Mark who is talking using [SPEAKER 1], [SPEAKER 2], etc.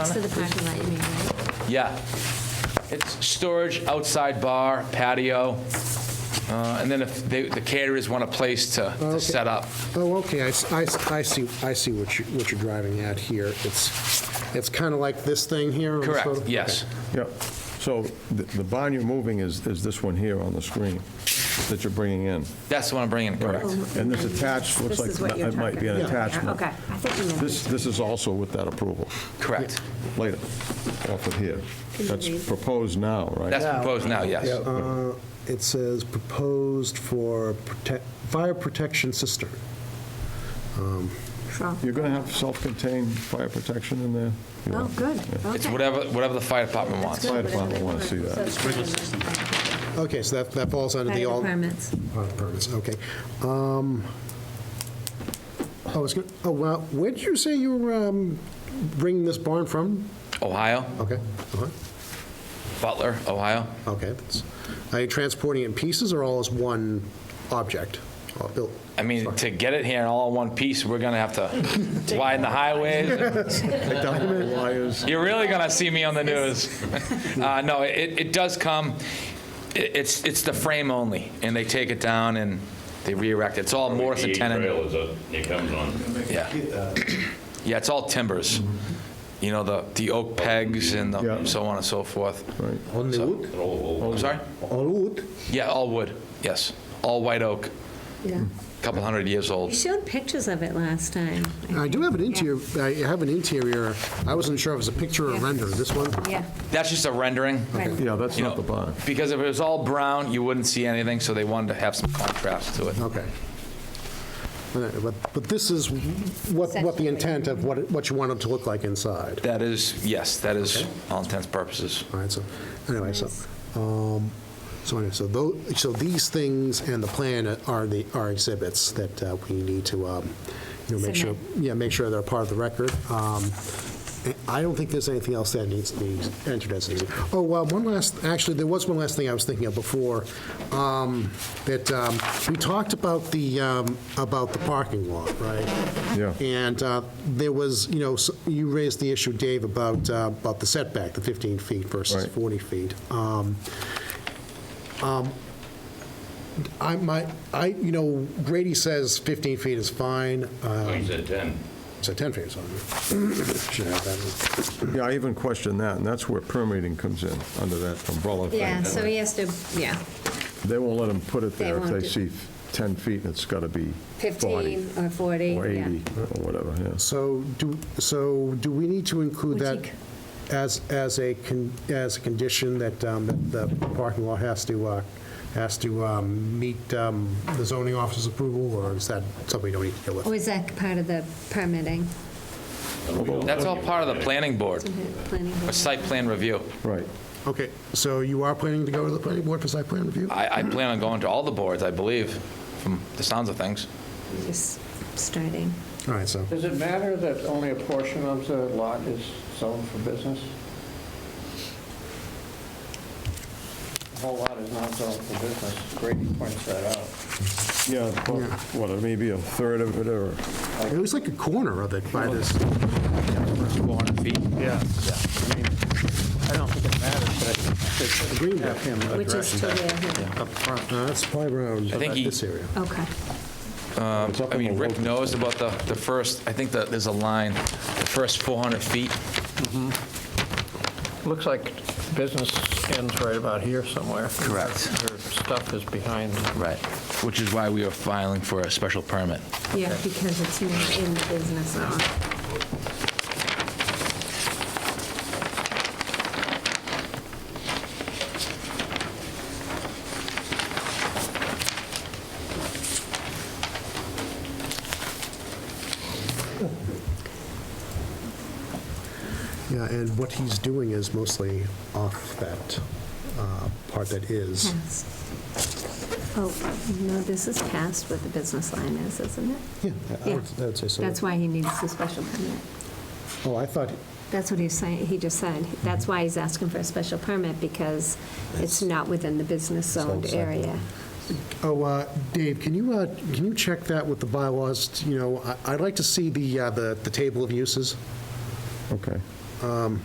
[SPEAKER 1] So the parking lot, you mean, right?
[SPEAKER 2] Yeah. It's storage, outside bar, patio, uh, and then if they- the caterers want a place to to
[SPEAKER 3] Okay.
[SPEAKER 2] set up.
[SPEAKER 3] Oh, okay, I, s- I s- I see, I see what you, what you're driving at here. It's, it's kind of like this thing here? on the
[SPEAKER 2] Correct,
[SPEAKER 3] photo?
[SPEAKER 2] yes.
[SPEAKER 4] Yeah, so the the barn you're moving is, is this one here on the screen that you're bringing in?
[SPEAKER 2] That's the one I'm bringing, correct.
[SPEAKER 4] And this attached, looks
[SPEAKER 1] This is
[SPEAKER 4] like
[SPEAKER 1] what you're
[SPEAKER 4] it might be an
[SPEAKER 1] talking about.
[SPEAKER 4] attachment.
[SPEAKER 1] Okay, I think we know.
[SPEAKER 4] This, this is also with that approval,
[SPEAKER 2] Correct.
[SPEAKER 4] later, off of here.
[SPEAKER 1] Can you
[SPEAKER 4] That's
[SPEAKER 1] read?
[SPEAKER 4] proposed now,
[SPEAKER 2] That's
[SPEAKER 4] right?
[SPEAKER 2] proposed now, yes.
[SPEAKER 3] Uh, It says proposed for protect, fire protection cistern.
[SPEAKER 1] Sure.
[SPEAKER 4] You're going to have self-contained fire protection in there? You
[SPEAKER 1] Oh,
[SPEAKER 4] are.
[SPEAKER 1] good, okay.
[SPEAKER 2] It's whatever, whatever the fire department wants.
[SPEAKER 4] Fire department wanna see that.
[SPEAKER 3] Okay, so that, that falls under the
[SPEAKER 1] Fire
[SPEAKER 3] all.
[SPEAKER 1] departments.
[SPEAKER 3] Oh, the permits, okay. Um, Oh, it's good, oh, well, where did you say you were um, bringing this barn from?
[SPEAKER 2] Ohio,
[SPEAKER 3] Okay, uh-huh,
[SPEAKER 2] Butler, Ohio.
[SPEAKER 3] okay. that's- Are you transporting it in pieces or all as one object? All built-
[SPEAKER 2] I mean, to get it here in all in one piece, we're going to have to widen the highways.
[SPEAKER 4] Take down all the wires.
[SPEAKER 2] You're really going to see me on the news. Uh, No, it it does come, i- it's it's the frame only, and they take it down and they re-erect it. It's all Morris and tenon.
[SPEAKER 5] Trail is a, it comes on.
[SPEAKER 2] Yeah. Yeah, it's all timbers. You know, the, the oak pegs and the
[SPEAKER 4] Mm-hmm. Yeah.
[SPEAKER 2] so on and so forth.
[SPEAKER 4] Right.
[SPEAKER 6] Only wood?
[SPEAKER 2] I'm sorry?
[SPEAKER 6] All wood?
[SPEAKER 2] Yeah, all wood, yes. All white oak,
[SPEAKER 1] Yeah.
[SPEAKER 2] couple hundred years
[SPEAKER 1] You
[SPEAKER 2] old.
[SPEAKER 1] showed pictures of it last time.
[SPEAKER 3] I do have an interior, I have an interior, I wasn't sure if it was a picture or
[SPEAKER 1] Yeah.
[SPEAKER 3] render, this one?
[SPEAKER 1] Yeah.
[SPEAKER 2] That's just a rendering.
[SPEAKER 1] right.
[SPEAKER 4] Yeah, that's
[SPEAKER 2] You
[SPEAKER 4] not
[SPEAKER 2] know,
[SPEAKER 4] the barn.
[SPEAKER 2] because if it was all brown, you wouldn't see anything, so they wanted to have some contrast to it.
[SPEAKER 3] Okay. All right, But, but this is what, what the intent of what, it- what you want it to look like inside.
[SPEAKER 2] That is, yes, that is all intents and purposes.
[SPEAKER 3] All right, so, anyway, so, um, so anyway, so tho, so these things and the plan are the, are exhibits that uh, we need to, um, you know, make sure, yeah, make sure they're part of the record. Um, and I don't think there's anything else that needs to be entered as an exhibit. Oh, well, one last, actually, there was one last thing I was thinking of before, um, that, um, we talked about the, um, about the parking lot, right?
[SPEAKER 4] Yeah.
[SPEAKER 3] And uh, there was, you know, s- you raised the issue, Dave, about, uh, about the setback, the 15 feet versus
[SPEAKER 4] Right.
[SPEAKER 3] 40 feet. Um, um, I might, I, you know, Grady says 15 feet is fine, uh,
[SPEAKER 5] He said 10.
[SPEAKER 3] so 10 feet is fine. Should have that.
[SPEAKER 4] Yeah, I even questioned that, and that's where permitting comes in, under that umbrella thing.
[SPEAKER 1] Yeah, so he has to, yeah,
[SPEAKER 4] They won't let them put it
[SPEAKER 1] They
[SPEAKER 4] there if
[SPEAKER 1] won't
[SPEAKER 4] they
[SPEAKER 1] do-
[SPEAKER 4] see 10 feet and it's got to be 40
[SPEAKER 1] 15 or 40,
[SPEAKER 4] or
[SPEAKER 1] yeah.
[SPEAKER 4] 80 or whatever, yes.
[SPEAKER 3] So do, so do we need to include that
[SPEAKER 1] Boutique.
[SPEAKER 3] as, as a, con- as a condition that um, that the parking lot has to, uh, has to um, meet um, the zoning officer's approval, or is that something we don't need to deal with?
[SPEAKER 1] Or is that part of the permitting?
[SPEAKER 2] That's all part of the planning board,
[SPEAKER 1] Planning
[SPEAKER 2] a
[SPEAKER 1] board?
[SPEAKER 2] site plan review.
[SPEAKER 4] Right.
[SPEAKER 3] Okay, so you are planning to go to the planning board for site plan review?
[SPEAKER 7] Uh,
[SPEAKER 2] I, I plan on going to all the boards, I believe, from the sounds of things.
[SPEAKER 1] Just starting.
[SPEAKER 3] All right, so,
[SPEAKER 7] Does it matter that only a portion of the lot is zoned for business? The whole lot is not zoned for business. Grady points that out.
[SPEAKER 4] Yeah, well, what, maybe a third of it or,
[SPEAKER 3] it was like a corner of it by this,
[SPEAKER 2] 400 feet.
[SPEAKER 7] Yeah. I mean, I don't think it matters, but I think
[SPEAKER 3] green
[SPEAKER 7] they have
[SPEAKER 3] belt.
[SPEAKER 7] him
[SPEAKER 1] Which is
[SPEAKER 7] address
[SPEAKER 1] to
[SPEAKER 7] that
[SPEAKER 1] the,
[SPEAKER 7] up front.
[SPEAKER 3] Uh, That's probably around
[SPEAKER 2] I think
[SPEAKER 3] about
[SPEAKER 2] he-
[SPEAKER 3] this area.
[SPEAKER 1] okay.
[SPEAKER 4] it's up
[SPEAKER 2] Um, I
[SPEAKER 4] in
[SPEAKER 2] mean,
[SPEAKER 4] the
[SPEAKER 2] Rick
[SPEAKER 4] local-
[SPEAKER 2] knows about the, the first, I think that there's a line, the first 400 feet.
[SPEAKER 7] Looks like business ends right about here somewhere.
[SPEAKER 2] Correct.
[SPEAKER 7] Their stuff is behind.
[SPEAKER 2] Right. Which is why we are filing for a special permit.
[SPEAKER 1] Yeah, because it's not in the business zone.
[SPEAKER 3] Yeah, and what he's doing is mostly off that uh, part that is.
[SPEAKER 1] Pass. Oh, no, this is past what the business line is, isn't it?
[SPEAKER 3] Yeah, I
[SPEAKER 1] Yeah.
[SPEAKER 3] would I would say so.
[SPEAKER 1] That's why he needs the special permit.
[SPEAKER 3] Oh, I thought,
[SPEAKER 1] That's what he's saying, he just said. That's why he's asking for a special permit, because it's not within the business zoned
[SPEAKER 3] Zone, sorry.
[SPEAKER 1] area.
[SPEAKER 3] oh, uh, Dave, can you, uh, can you check that with the bylaws? You know, I- I'd like to see the, uh, the the table of uses.
[SPEAKER 4] Okay.
[SPEAKER 3] Um,